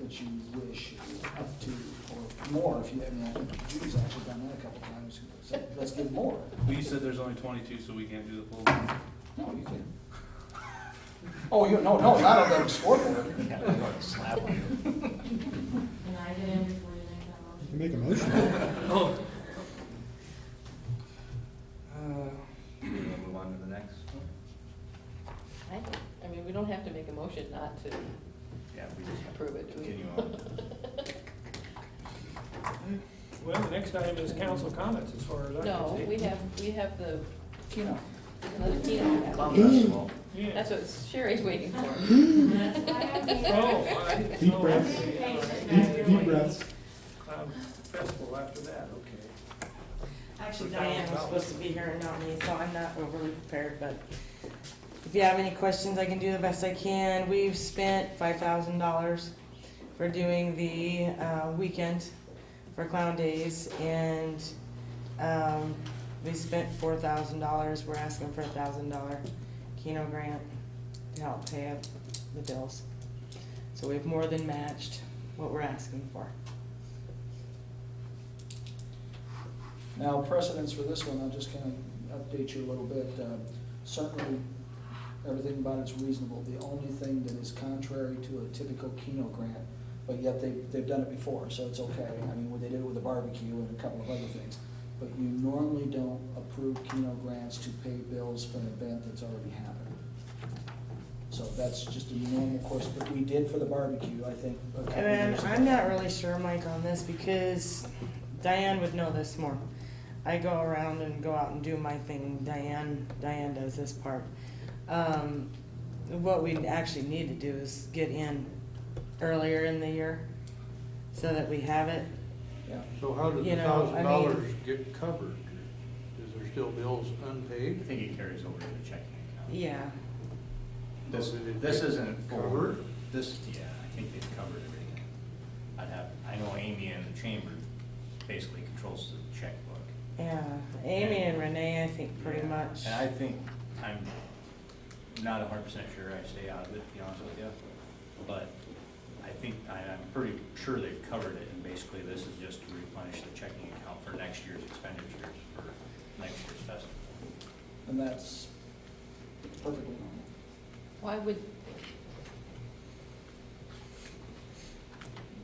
that you wish up to, or more, if you, I mean, I think Judy's actually done that a couple times, so let's give more. Well, you said there's only twenty-two, so we can't do the full one. No, you can. Oh, you, no, no, not on the scoreboard. Slap on Can I get in before you make that motion? Make a motion. Oh. Do we wanna move on to the next one? I think, I mean, we don't have to make a motion not to Yeah, we just approve it, do we? continue on. Well, the next item is council comments, as far as I can No, see. we have, we have the, it. You know, another keynote. Clown festival. Yeah. That's what Sherry's waiting for. That's why I'm here. Oh, I didn't Deep know. breaths. Deep deep breaths. Clown festival after that, okay. Actually, Diane was supposed to be here and not me, so I'm not overly prepared, but if you have any questions, I can do the best I can. We've spent five thousand dollars for doing the, uh, weekend for Clown Days, and, um, we spent four thousand dollars. We're asking for a thousand dollar Keno grant to help pay up the bills. So we've more than matched what we're asking for. Now, precedence for this one, I'll just kind of update you a little bit. Uh, Certainly, everything about it's reasonable. The only thing that is contrary to a typical Keno grant, but yet they, they've done it before, so it's okay. I mean, they did it with a barbecue and a couple of other things. But you normally don't approve Keno grants to pay bills for an event that's already happened. So that's just a normal course, but we did for the barbecue, I think, a couple of And years ago. I'm not really sure, Mike, on this because Diane would know this more. I go around and go out and do my thing. Diane, Diane does this part. Um, what we actually need to do is get in earlier in the year so that we have it. Yeah. So how did You the know, I mean- thousand dollars get covered? Is there still bills unpaid? I think it carries over to the checking account. Yeah. This, Well, did it this get isn't for, covered? this, yeah, I think they've covered everything. I'd have, I know Amy in the chamber basically controls the checkbook. Yeah. Amy and Renee, I think, pretty Yeah. much. And I think, I'm not a hundred percent sure I stay out of it, to be honest with you, but I think, I, I'm pretty sure they've covered it, and basically this is just to replenish the checking account for next year's expenditures for next year's festival. And that's perfectly normal. Why would?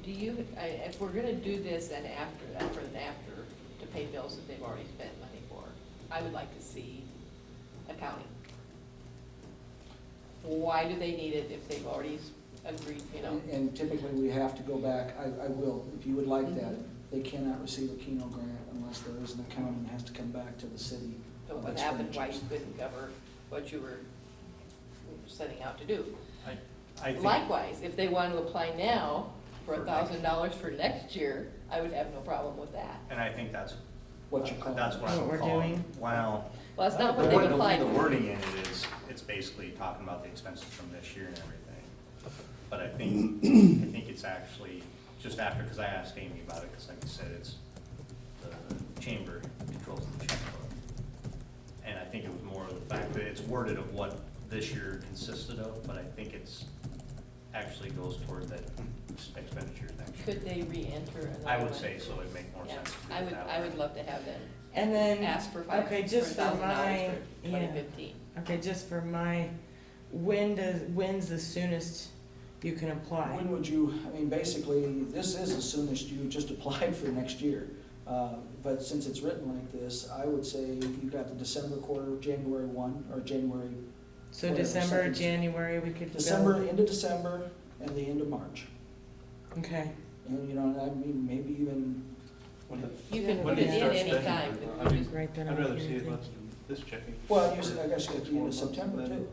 Do you, I, if we're gonna do this then after, after and after, to pay bills that they've already spent money for, I would like to see accounting. Why do they need it if they've already s- agreed, you know? And- And typically, we have to go back, I, I will, if you would like that, Mm-hmm. they cannot receive a Keno grant unless there is an accountant that has to come back to the city. So of what happened, why you expenditures. couldn't cover what you were setting out to do. I, I think. Likewise, if they want to apply now for a For next- thousand dollars for next year, I would have no problem with that. And I think that's. What you call it. That's what I'm What we're calling- doing. Well. Well, that's not the what they've way- the way applied The for. wording in it is, it's basically talking about the expenses from this year and everything. But I think, I think it's actually just after, because I asked Amy about it, because like you said, it's, the chamber controls the checkbook. And I think it was more of the fact that it's worded of what this year consisted of, but I think it's, actually goes toward that expenditure next year. Could they re-enter another I one? would say so, it'd make more Yeah, sense. to do I it would, that I way. would love to have them And then. ask for five, for Okay, a just for thousand dollars my, for twenty yeah. fifteen. Okay, just for my, when does, when's the soonest you can apply? When would you, I mean, basically, this is as soon as you just applied for next year. Uh, But since it's written like this, I would say you've got the December quarter, January one, or January, So Whatever, December, second- January, we could. go- December, end of December, and the end of March. Okay, And, you know, and I mean, maybe even, You can put When do it you in start any spending? time. I mean, right then. I'd on rather here, see I it think. less than this checking. well, you said, I guess you got the end of September too.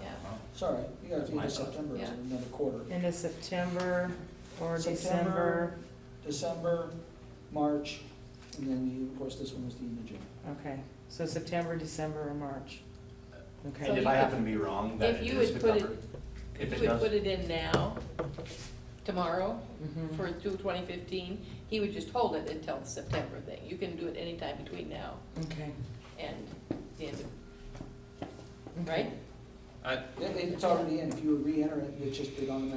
Yeah, Sorry, you got the end My of thought. September, is Yeah. another quarter. End of September or September. December, December, March, and then, the- of course, this one was the end of June. okay, so September, December, or March. And Okay, if I happen to be wrong, then If it you is would the put it- cover. If it you would does, put it in now, tomorrow, Mhm. for two- 2015. he would just hold it until the September thing. You can do it anytime between now okay. and the end of, okay. right? It- It's already in, if you would re-enter it, it's just been on the